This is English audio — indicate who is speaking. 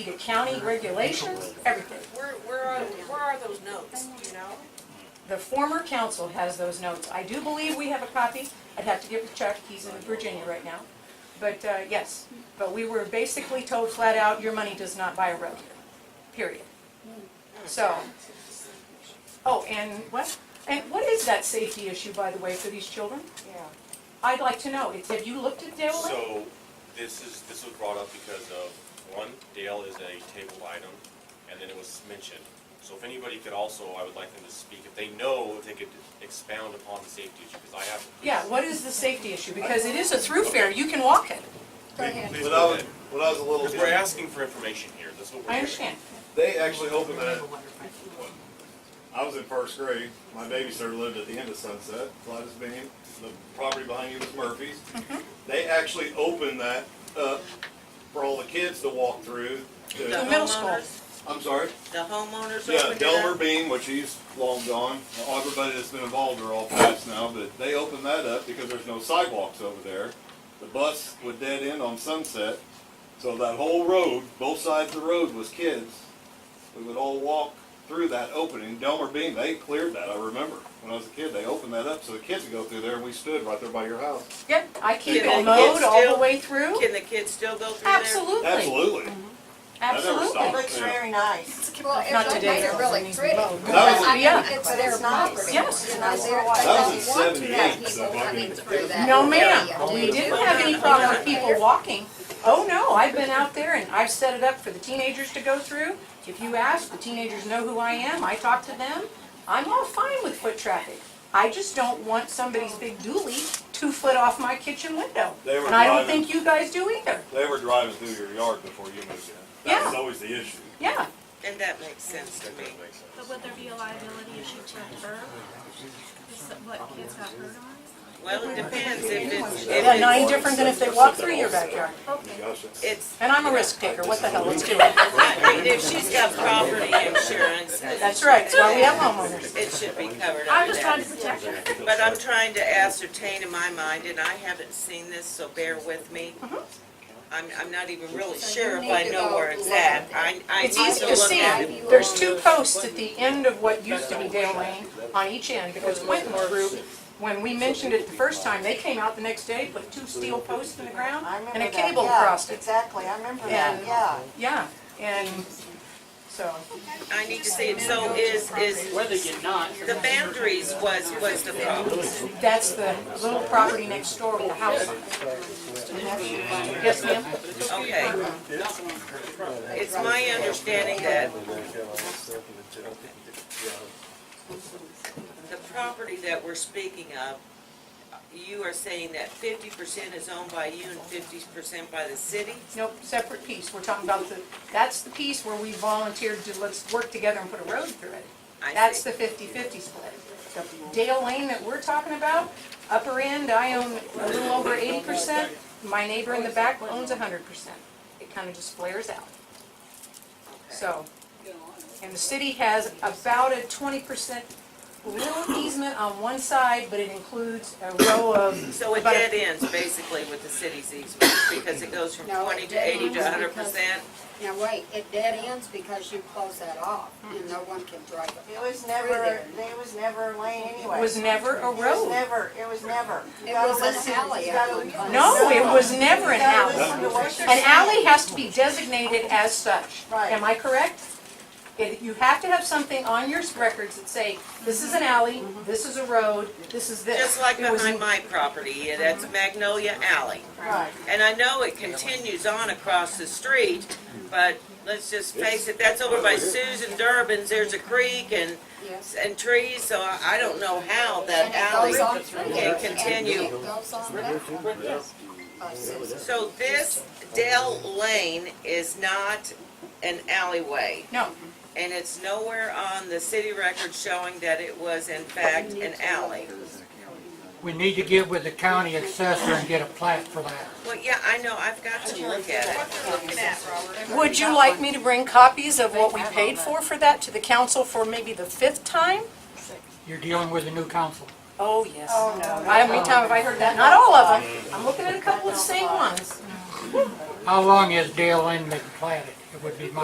Speaker 1: the county regulations, everything.
Speaker 2: Where, where are, where are those notes, you know?
Speaker 1: The former council has those notes. I do believe we have a copy. I'd have to give it to Chuck, he's in Virginia right now. But, uh, yes, but we were basically told flat out, your money does not buy a road here, period. So, oh, and what, and what is that safety issue, by the way, for these children?
Speaker 2: Yeah.
Speaker 1: I'd like to know. It's, have you looked at Dale Lake?
Speaker 3: So, this is, this was brought up because of, one, Dale is a tabled item, and then it was mentioned. So if anybody could also, I would like them to speak, if they know, if they could expound upon the safety issue, because I have.
Speaker 1: Yeah, what is the safety issue? Because it is a throughfare, you can walk it.
Speaker 2: Go ahead.
Speaker 3: Please
Speaker 4: When I
Speaker 3: go
Speaker 4: was,
Speaker 3: ahead.
Speaker 4: when I was a little
Speaker 3: Because we're
Speaker 4: kid,
Speaker 3: asking for information here, that's what we're
Speaker 1: I
Speaker 3: hearing.
Speaker 1: understand.
Speaker 4: they actually opened that. I was in first grade. My babysitter lived at the end of Sunset, Gladys Bean. The property behind you was Murphy's.
Speaker 1: Mm-hmm.
Speaker 4: They actually opened that up for all the kids to walk through. to-
Speaker 1: The middle school.
Speaker 4: I'm sorry?
Speaker 2: The homeowners
Speaker 4: Yeah, Delmer Beam, which he's long gone. Everybody that's been involved are all past now, but they opened that up because there's no sidewalks over there. The bus would dead end on Sunset, so that whole road, both sides of the road was kids. We would all walk through that opening. Delmer Beam, they cleared that, I remember. When I was a kid, they opened that up so the kids would go through there and we stood right there by your house.
Speaker 1: Yep, I keep
Speaker 2: Can
Speaker 1: it
Speaker 2: the kids
Speaker 1: mowed all
Speaker 2: still-
Speaker 1: the way through.
Speaker 2: Can the kids still go through there?
Speaker 1: Absolutely,
Speaker 4: Absolutely. never
Speaker 1: absolutely.
Speaker 4: stopped.
Speaker 5: Looks very nice.
Speaker 6: Well, it
Speaker 1: Not
Speaker 6: does
Speaker 1: today,
Speaker 6: make it
Speaker 1: though.
Speaker 6: really pretty.
Speaker 4: That was-
Speaker 6: I
Speaker 1: yeah.
Speaker 6: think it's their property.
Speaker 1: Yes.
Speaker 6: You know, they're-
Speaker 4: That was
Speaker 6: they
Speaker 4: in
Speaker 6: don't want to have
Speaker 4: 78, so
Speaker 6: people
Speaker 4: I
Speaker 6: coming
Speaker 4: mean,
Speaker 6: through that
Speaker 1: No,
Speaker 6: area,
Speaker 1: ma'am,
Speaker 6: do
Speaker 1: we
Speaker 6: you?
Speaker 1: didn't have any problem with people walking. Oh, no, I've been out there and I've set it up for the teenagers to go through. If you ask, the teenagers know who I am, I talk to them. I'm all fine with foot traffic. I just don't want somebody's big dually two foot off my kitchen window.
Speaker 4: They were
Speaker 1: And I don't
Speaker 4: driving.
Speaker 1: think you guys do either.
Speaker 4: They were driving through your yard before you moved in. That was
Speaker 1: Yeah.
Speaker 4: always the issue.
Speaker 1: Yeah,
Speaker 2: And that makes sense to me.
Speaker 3: That makes sense.
Speaker 7: But would there be a liability issue to her? Is that what kids got hurt on?
Speaker 2: Well, it depends if it's, if
Speaker 1: yeah,
Speaker 2: it's,
Speaker 1: nine different than if they walk through your backyard.
Speaker 4: Gotcha.
Speaker 2: it's,
Speaker 1: And I'm a risk taker, what the hell, let's do it.
Speaker 2: I mean, if she's got property insurance,
Speaker 1: That's right, that's why we have homeowners.
Speaker 2: it should be covered
Speaker 7: I'm
Speaker 2: under
Speaker 7: just trying
Speaker 2: that.
Speaker 7: to protect her.
Speaker 2: But I'm trying to ascertain in my mind, and I haven't seen this, so bear with me. I'm, I'm not even really sure if
Speaker 6: need
Speaker 2: I
Speaker 6: to
Speaker 2: know
Speaker 6: go
Speaker 2: where it's
Speaker 6: look
Speaker 2: at.
Speaker 6: at
Speaker 2: I, I need
Speaker 1: It's
Speaker 2: to
Speaker 1: easy to
Speaker 2: look
Speaker 1: see.
Speaker 2: at it.
Speaker 1: There's two posts at the end of what used to be Dale Lane on each end, because Quentin's group, when we mentioned it the first time, they came out the next day, put two steel posts in the ground,
Speaker 5: I remember
Speaker 1: and a
Speaker 5: that,
Speaker 1: cable
Speaker 5: yeah,
Speaker 1: across it.
Speaker 5: Exactly, I remember that,
Speaker 1: And-
Speaker 5: yeah.
Speaker 1: Yeah, and so,
Speaker 2: I need to see it, so is, is,
Speaker 8: Whether you're not,
Speaker 2: the boundaries was, was the problem.
Speaker 1: that's the little property next door with the house on it. Yes, ma'am?
Speaker 2: Okay, it's my understanding that the property that we're speaking of, you are saying that fifty percent is owned by you and fifty percent by the city?
Speaker 1: Nope, separate piece. We're talking about the, that's the piece where we volunteered to, let's work together and put a road through it.
Speaker 2: I
Speaker 1: That's
Speaker 2: see.
Speaker 1: the 50/50 split. The Dale Lane that we're talking about, upper end, I own a little over eighty percent, my neighbor in the back owns hundred percent. It kind of just flares out, so. And the city has about a twenty percent little easement on one side, but it includes a row of.
Speaker 2: So it
Speaker 1: about a-
Speaker 2: dead ends basically with the city's easement, because it goes from
Speaker 6: No, it
Speaker 2: twenty to
Speaker 6: dead
Speaker 2: eighty to
Speaker 6: ends
Speaker 2: hundred
Speaker 6: because-
Speaker 2: percent?
Speaker 6: Now, wait, it dead ends because you close that off and no one can drive it.
Speaker 5: It was never,
Speaker 6: there.
Speaker 5: it was never a lane anyway.
Speaker 1: It was never a
Speaker 5: It was
Speaker 1: road.
Speaker 5: never, it was never. You
Speaker 6: It
Speaker 5: gotta
Speaker 6: was
Speaker 5: listen-
Speaker 6: an alley
Speaker 5: you
Speaker 6: at
Speaker 5: gotta-
Speaker 6: one time.
Speaker 1: No, it was never
Speaker 5: You
Speaker 1: an
Speaker 5: gotta
Speaker 1: alley.
Speaker 5: listen to what they're
Speaker 1: An alley
Speaker 5: saying.
Speaker 1: has to be designated as such.
Speaker 5: Right.
Speaker 1: Am I correct? It- You have to have something on your records that say, this is an alley, this is a road, this is this.
Speaker 2: Just like
Speaker 1: It was-
Speaker 2: behind my property, yeah, that's Magnolia Alley.
Speaker 5: Right.
Speaker 2: And I know it continues on across the street, but let's just face it, that's over by Susan Durbin's, there's a creek and,
Speaker 6: Yes.
Speaker 2: and trees, so I I don't know how
Speaker 6: And
Speaker 2: that
Speaker 6: it
Speaker 2: alley.
Speaker 6: goes on through.
Speaker 2: can continue.
Speaker 6: And It goes on back. By Susan.
Speaker 2: So this Dell Lane is not an alleyway,
Speaker 1: No,
Speaker 2: and it's nowhere on the city record showing that it was in fact an alley.
Speaker 9: We need to get with the county assessor and get a plat for that.
Speaker 2: Well, yeah, I know, I've got to look at it.
Speaker 1: Would you like me to bring copies of what we paid for for that to the council for maybe the fifth time?
Speaker 9: You're dealing with a new council.
Speaker 1: Oh, yes. Oh, no. How many times have I heard that? Not all of them. I'm looking at a couple of the same ones.
Speaker 9: How long has Dale Lane been platted? It would be my